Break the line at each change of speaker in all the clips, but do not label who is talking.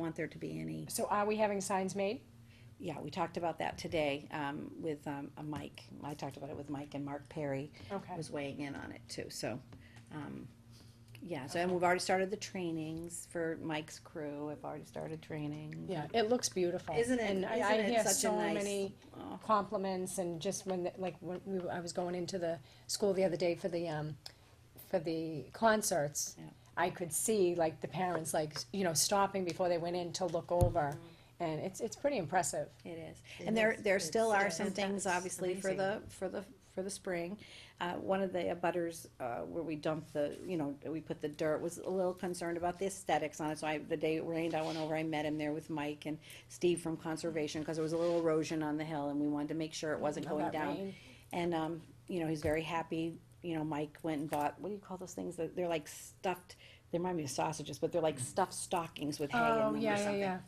want there to be any,
So are we having signs made?
yeah, we talked about that today, um, with, um, a Mike. I talked about it with Mike and Mark Perry
Okay.
was weighing in on it too, so, um, yeah, so, and we've already started the trainings for Mike's crew. I've already started training.
Yeah, it looks beautiful.
Isn't it-
And I-
isn't it
I hear
such a
so
nice-
many
Oh,
compliments and just when, the- like, when we, were- I was going into the school the other day for the, um, for the concerts.
Yeah.
I could see like the parents, like, you know, stopping before they went in to look over. And it's, it's pretty impressive.
It is,
It
and there,
is.
there still
It's-
are
it's-
some things,
that's
obviously, for the,
amazing.
for the, for the spring. Uh, one of the abutters, uh, where we dumped the, you know, we put the dirt, was a little concerned about the aesthetics on it, so I, the day it rained, I went over, I met him there with Mike and Steve from Conservation, cause there was a little erosion on the hill, and we wanted to make sure
Oh,
it wasn't
All
going
that
down.
rain.
And, um, you know, he's very happy, you know, Mike went and bought, what do you call those things, that, they're like stuffed, they remind me of sausages, but they're like stuffed stockings with hay in
Oh,
them or
yeah, yeah,
something.
yeah.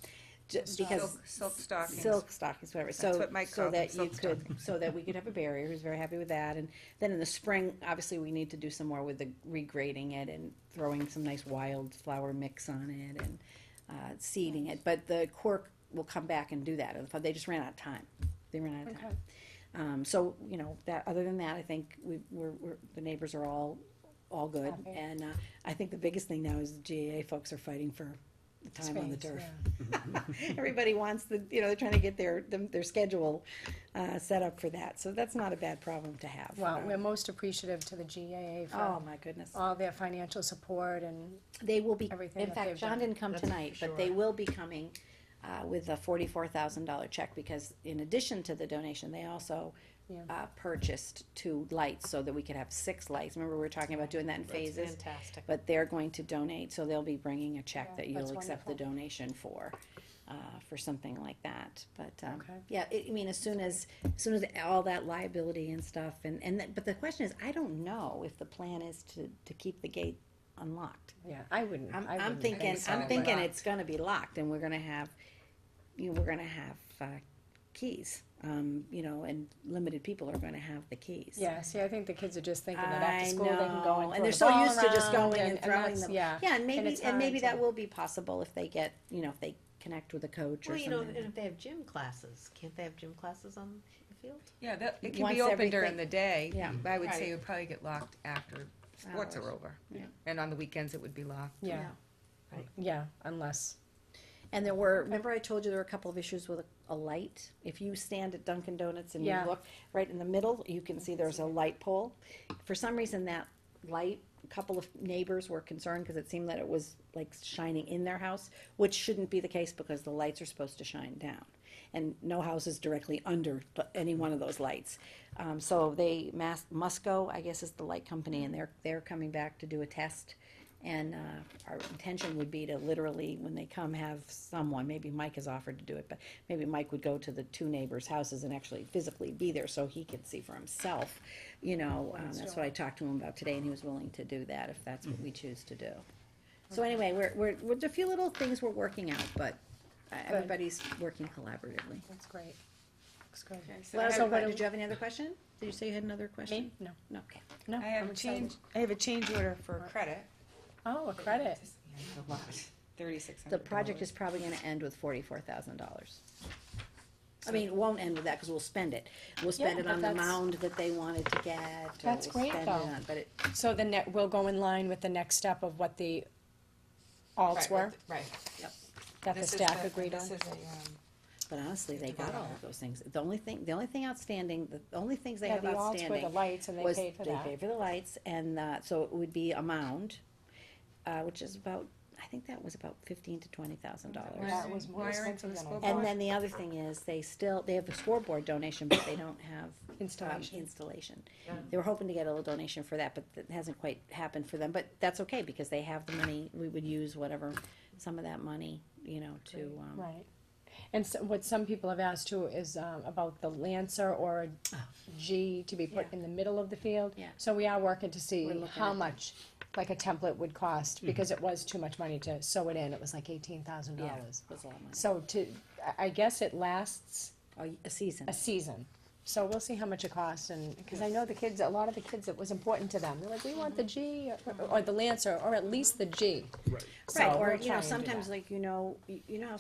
Ju- Because
Silk- Silk stockings.
silk stockings, whatever. So,
what Mike
so
called them,
that you
silk
could, so that we could have a barrier. Who's very happy with that. And then in the spring, obviously, we need to do some more with the regrading it and throwing some nice wildflower mix on it and uh, seeding it. But the cork will come back and do that. They just ran out of time. They ran out of time.
Okay.
Um, so you know that. Other than that, I think we, we're, we're the neighbors are all all good.
Happy.
And uh, I think the biggest thing now is the GAA folks are fighting for the time on the
Space,
turf.
yeah.
Everybody wants the, you know, they're trying to get their, them- their schedule uh, set up for that, so that's not a bad problem to have.
Well,
Uh,
we're most appreciative to the GAA
Oh,
for
my goodness.
all their financial support and,
They will be,
Everything
in
that
fact,
they've
John
done.
didn't come
That's for
tonight, but they
sure.
will be coming uh, with a forty-four thousand dollar check, because in addition to the donation, they also
Yeah.
uh, purchased two lights so that we could have six lights. Remember, we were talking about doing that in
That's
phases?
fantastic.
But they're going to donate, so they'll be bringing a check
Yeah,
that
that's
you'll accept the donation for, uh, for something like that. But, um,
Okay.
yeah, it, I mean, as soon as, as soon as all that liability and stuff, and, and, that- but the question is, I don't know if the plan is to, to keep the gate unlocked.
yeah, I wouldn't.
I'm,
I
I'm
wouldn't
thinking,
so,
I'm
but-
thinking it's gonna be locked and we're gonna have, you know, we're gonna have, uh, keys. Um, you know, and limited people are gonna have the keys.
Yeah, see, I think the kids are just thinking that after school they can go
know,
and throw
they're
the
so
ball
used to just
around
going and throwing
that's-
them.
Yeah.
Yeah, and
and
maybe,
it's
and maybe
hard
that
to-
will be possible if they get, you know, if they connect with a coach or
Well, you know, and
something.
if they have gym classes, can't they have gym classes on the field?
Yeah, that, it can
Once
be open during
everything-
the day.
Yeah.
But I would say
Right.
it would probably get locked after sports
Hours.
are over.
Yeah.
And on the weekends, it would be locked.
Yeah,
Yeah.
yeah, unless,
And there were, remember I told you there were a couple of issues with a, a light? If you stand at Dunkin' Donuts and you
Yeah.
look right in the middle, you can see there's a light pole. For some reason, that light, a couple of neighbors were concerned because it seemed that it was like shining in their house, which shouldn't be the case because the lights are supposed to shine down. And no house is directly under the- any one of those lights. Um, so they, Mas- Musco, I guess is the light company, and they're, they're coming back to do a test. And uh, our intention would be to literally, when they come, have someone, maybe Mike has offered to do it, but maybe Mike would go to the two neighbors' houses and actually physically be there so he could see for himself. You know, um, that's what I talked to him about today, and he was willing to do that if that's what we
Mm-hmm.
choose to do. So anyway, we're, we're, we're, there are a few little things we're working out, but uh, everybody's working collaboratively.
that's great. Looks good.
So I
Well,
have
so
a
what,
que-
did you have any other question? Did you say you had another question?
Me? No,
No, okay.
no.
I have
I'm
a
excited.
change, I have a change order for credit.
Oh, a credit.
A lot, thirty-six
The
hundred
project is probably gonna end with forty-four thousand dollars. I mean, it won't end with that, cause we'll spend it. We'll spend
Yeah,
it
but
on the
that's-
mound that they wanted to get. or
That's
we'll
great,
spend it
though.
on- But it,
So the net, we'll go in line with the next step of what the alts were
Right.
that the
This is
staff
the-
agreed on.
This is a, um,
but honestly, they
Think
got
about
all
it.
of those things. The only thing, the only thing outstanding, the only things they
Yeah,
have
the alts were the
outstanding
lights and they
was
paid for
they
that.
pay for the lights and, uh, so it would be a mound, uh, which is about, I think that was about fifteen to twenty thousand dollars.
That was more
Wiring for
expensive
the
than I
school
thought.
And then the other thing is, they still, they have a scoreboard donation, but they don't have. um,
Installation.
Installation. They were hoping to get a little donation for that, but that hasn't quite happened for them, but that's okay, because they have the money, we would use whatever, some of that money, you know, to, um,
Right. And so, what some people have asked too is um, about the Lancer or a G to be put in the middle of the field.
Oh. Yeah.
So we are working to see
We're looking
how
at- Mm-hmm.
much, like a template would cost, because it was too much money to sew it in, it was like eighteen thousand
yeah,
dollars.
was a lot of money.
So to, I- I guess it lasts
Oh, y- a season,
a season, So we'll see how much it costs and, because I know the kids, a lot of the kids, it was important to them. They're like, we want the G
Mm-hmm.
or- or the Lancer or at least the G.
Right.
So
Right, or, you
we'll try
know,
and do that.
sometimes like, you know, you you know how